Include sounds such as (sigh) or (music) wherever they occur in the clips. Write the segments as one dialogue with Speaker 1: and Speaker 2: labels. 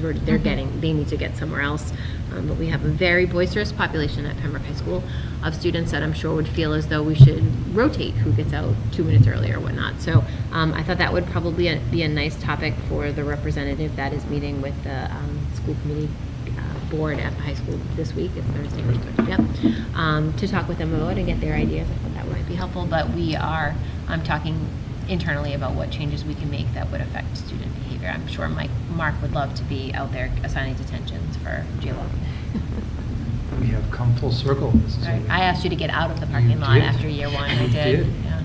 Speaker 1: we're, they're getting, they need to get somewhere else. Um, But we have a very boisterous population at Pembroke High School of students that I'm sure would feel as though we should rotate who gets out two minutes early or whatnot. So um, I thought that would probably a- be a nice topic for the representative that is meeting with the um, school committee uh, board at the high school this week, it's Thursday. Yep. Um, To talk with them about it and get their ideas, I thought that might be helpful. But we are, I'm talking internally about what changes we can make that would affect student behavior. I'm sure Mike, Mark would love to be out there assigning detentions for
Speaker 2: (laughs)
Speaker 1: JLo.
Speaker 3: We have come full circle. This is
Speaker 1: Right. I asked you to get out of the
Speaker 3: You
Speaker 1: parking lot
Speaker 3: did.
Speaker 1: after year one, I
Speaker 3: You
Speaker 1: did.
Speaker 3: did.
Speaker 1: Yeah.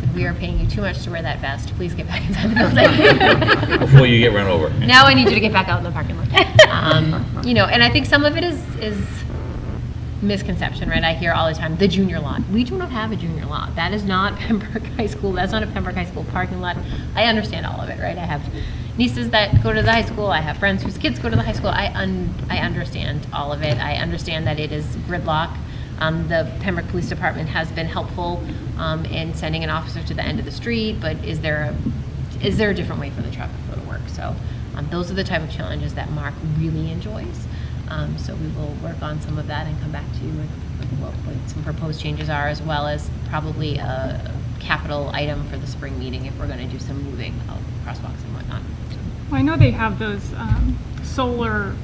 Speaker 1: Said, We are paying you too much to wear that vest, please get back
Speaker 3: (laughs)
Speaker 1: inside the building.
Speaker 2: Before you get run over.
Speaker 1: Now I need you to get back out in the parking lot. Um, You know, and I think some of it is, is misconception, right? I hear all the time, the junior lot. We do not have a junior lot. That is not (laughs) Pembroke High School, that's not a Pembroke High School parking lot. I understand all of it, right? I have nieces that go to the high school, I have friends whose kids go to the high school. I un, I understand all of it. I understand that it is gridlock. Um, The Pembroke Police Department has been helpful um, in sending an officer to the end of the street, but is there a is there a different way for the traffic flow to work? So um, those are the type of challenges that Mark really enjoys. Um, so we will work on some of that and come back to you with, with what, what some proposed changes are, as well as probably a capital item for the spring meeting if we're going to do some moving of crosswalks and whatnot.
Speaker 4: Well, I know they have those um, solar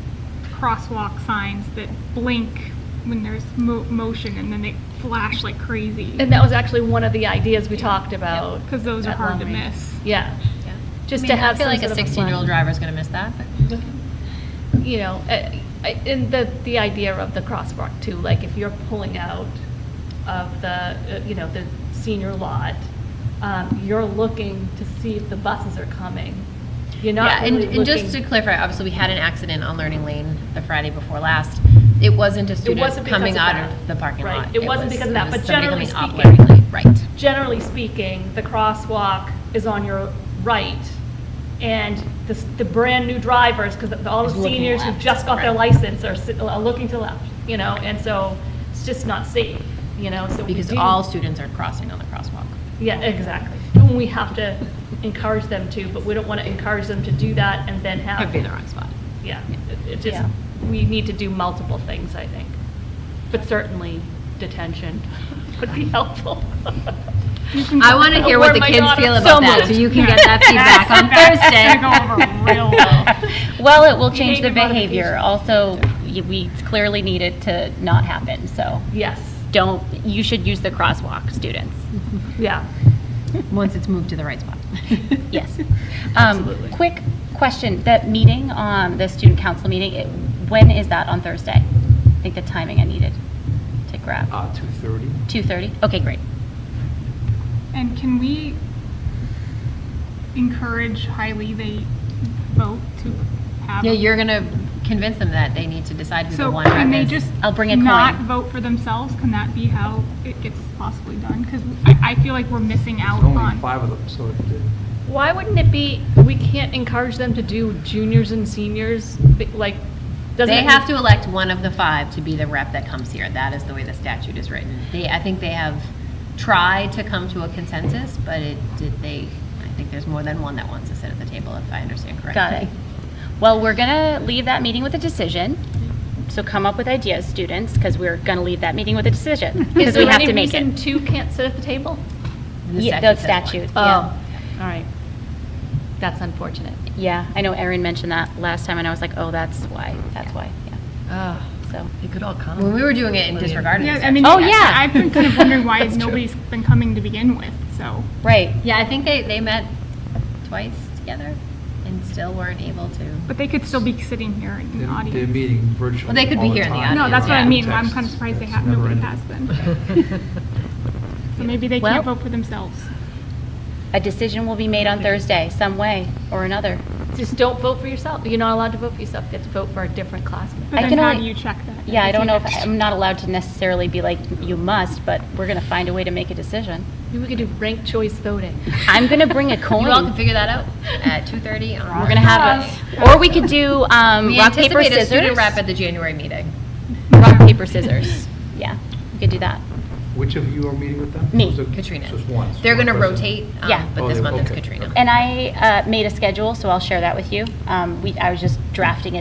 Speaker 4: crosswalk signs that blink when there's mo- motion and then they flash like crazy.
Speaker 5: And that was actually one of the ideas we talked about.
Speaker 4: Because those are
Speaker 5: at
Speaker 4: hard
Speaker 5: long
Speaker 4: to
Speaker 5: range.
Speaker 4: miss.
Speaker 5: Yeah,
Speaker 1: Yeah.
Speaker 5: Just
Speaker 1: I
Speaker 5: to
Speaker 1: mean,
Speaker 5: have
Speaker 1: I feel
Speaker 5: some
Speaker 1: like
Speaker 5: sort
Speaker 1: a
Speaker 5: of a
Speaker 1: 16 year old
Speaker 5: plan.
Speaker 1: driver is going to miss that, but
Speaker 5: you know, I- I- and the, the idea of the crosswalk too, like if you're pulling out of the, uh, you know, the senior lot, um, you're looking to see if the buses are coming. You're not
Speaker 1: yeah, and,
Speaker 5: really
Speaker 1: and just to
Speaker 5: looking-
Speaker 1: clarify, obviously we had an accident on Learning Lane the Friday before last. It wasn't a student
Speaker 5: wasn't because
Speaker 1: coming
Speaker 5: of
Speaker 1: out
Speaker 5: that.
Speaker 1: of the parking
Speaker 5: Right.
Speaker 1: lot.
Speaker 5: It wasn't
Speaker 1: was-
Speaker 5: because of that,
Speaker 1: was
Speaker 5: but
Speaker 1: somebody
Speaker 5: generally
Speaker 1: coming off
Speaker 5: speaking-
Speaker 1: Learning Lane. Right.
Speaker 5: Generally speaking, the crosswalk is on your right and the, s- the brand-new drivers, because all
Speaker 1: Is
Speaker 5: the
Speaker 1: looking
Speaker 5: seniors who
Speaker 1: left,
Speaker 5: just got their
Speaker 1: right.
Speaker 5: license are, sit- are looking to left, you know, and so it's just not safe, you know, so we
Speaker 1: Because
Speaker 5: do-
Speaker 1: all students are crossing on the crosswalk.
Speaker 5: Yeah, exactly. And we have to encourage them to, but we don't want to encourage them to do that and then have.
Speaker 1: I'd be in the wrong spot.
Speaker 5: Yeah, it- it just,
Speaker 1: Yeah.
Speaker 5: we need to do multiple things, I think. But certainly detention (laughs) would be helpful.
Speaker 1: I want to hear what
Speaker 5: Or
Speaker 1: the
Speaker 5: my
Speaker 1: kids
Speaker 5: daughter-
Speaker 1: feel
Speaker 5: so
Speaker 1: about that, so
Speaker 5: moved.
Speaker 1: you can get
Speaker 5: (laughs)
Speaker 1: that feedback on (laughs) Thursday.
Speaker 6: Well, it will change the
Speaker 5: Behavior
Speaker 6: behavior. Also, y- we clearly need it to not happen, so
Speaker 5: Yes,
Speaker 6: don't, you should use the crosswalk, students.
Speaker 5: yeah.
Speaker 1: Once it's moved to the right spot.
Speaker 5: (laughs)
Speaker 6: Yes. Absolutely. Quick question, that meeting, um, the student council meeting, it- when is that on Thursday? I think the timing I needed to grab.
Speaker 3: Uh, 2:30.
Speaker 6: 2:30? Okay, great.
Speaker 4: And can we encourage highly they vote to have?
Speaker 1: Yeah,
Speaker 4: a-
Speaker 1: you're going to convince them that they need to decide who the
Speaker 4: So
Speaker 1: one rep is.
Speaker 4: can they just
Speaker 6: I'll bring a
Speaker 4: not
Speaker 6: coin.
Speaker 4: vote for themselves? Can that be how it gets possibly done? Because I, I feel like we're missing out
Speaker 3: There's only
Speaker 4: on.
Speaker 3: five of them, so it-
Speaker 5: Why wouldn't it be, we can't encourage them to do juniors and seniors, but, like, doesn't.
Speaker 1: They
Speaker 5: it-
Speaker 1: have to elect one of the five to be the rep that comes here. That is the way the statute is written. They, I think they have tried to come to a consensus, but it, did they, I think there's more than one that wants to sit at the table, if I understand correctly.
Speaker 6: Got it. Well, we're going to leave that meeting with a decision, so come up with ideas, students, because we're going to leave that meeting with a decision, because we have to make
Speaker 5: Is there any reason
Speaker 6: it.
Speaker 5: two can't sit at the table?
Speaker 1: The
Speaker 6: Yeah, The
Speaker 1: statute
Speaker 6: statute,
Speaker 5: Oh.
Speaker 1: says one.
Speaker 6: yeah.
Speaker 5: all right. That's unfortunate.
Speaker 6: Yeah, I know Erin mentioned that last time, and I was like, oh, that's why, that's why, yeah,
Speaker 1: Ah.
Speaker 6: so.
Speaker 1: When we were doing it and disregarding the
Speaker 4: Yeah,
Speaker 1: statute.
Speaker 4: I mean,
Speaker 6: Oh,
Speaker 4: I-
Speaker 6: yeah.
Speaker 4: I've been kind of wondering why nobody's been coming to begin with, so.
Speaker 6: Right,
Speaker 1: Yeah, I think they, they met twice together and still weren't able to.
Speaker 4: But they could still be sitting here in the
Speaker 3: they're- they're
Speaker 4: audience.
Speaker 3: meeting virtually
Speaker 1: Well, they could be
Speaker 3: all the
Speaker 1: here in the
Speaker 3: time.
Speaker 1: audience,
Speaker 4: No, that's what I
Speaker 1: Yeah.
Speaker 4: mean, I'm
Speaker 3: Texts,
Speaker 4: kind of surprised they
Speaker 3: it's
Speaker 4: have, nobody
Speaker 3: never-ending.
Speaker 4: has been. (laughs) So maybe they
Speaker 6: Well-
Speaker 4: can't vote for themselves.
Speaker 6: a decision will be made on Thursday, some way or another.
Speaker 5: Just don't vote for yourself. You're not allowed to vote for yourself. You have to vote for a different classmate.
Speaker 4: But
Speaker 6: I
Speaker 4: then
Speaker 6: can
Speaker 4: how
Speaker 6: only-
Speaker 4: do you check that?
Speaker 6: Yeah, I
Speaker 4: If
Speaker 6: don't
Speaker 4: you-
Speaker 6: know if, I'm not allowed to necessarily be like, you must, but we're going to find a way to make a decision.
Speaker 5: Maybe we could do ranked choice voting.
Speaker 6: I'm going to
Speaker 5: (laughs)
Speaker 6: bring a coin.
Speaker 1: You all can figure that out at
Speaker 6: (laughs)
Speaker 1: 2:30.
Speaker 6: We're going to have, a- or we could do um,
Speaker 1: We
Speaker 6: rock, paper,
Speaker 1: anticipate a student
Speaker 6: scissors.
Speaker 1: rep at the January meeting. (laughs)
Speaker 6: Rock, paper, scissors. Yeah, we could do that.
Speaker 3: Which of you are meeting with them?
Speaker 6: Me.
Speaker 3: Was it-
Speaker 1: Katrina.
Speaker 3: so it's one, it's
Speaker 1: They're
Speaker 3: one
Speaker 1: going to
Speaker 3: person.
Speaker 1: rotate, um,
Speaker 6: Yeah.
Speaker 1: but
Speaker 3: Oh,
Speaker 1: this
Speaker 3: they-
Speaker 1: month it's
Speaker 3: okay,
Speaker 1: Katrina.
Speaker 3: okay.
Speaker 6: And I uh, made a schedule, so I'll share that with you. Um, We, I was just drafting it.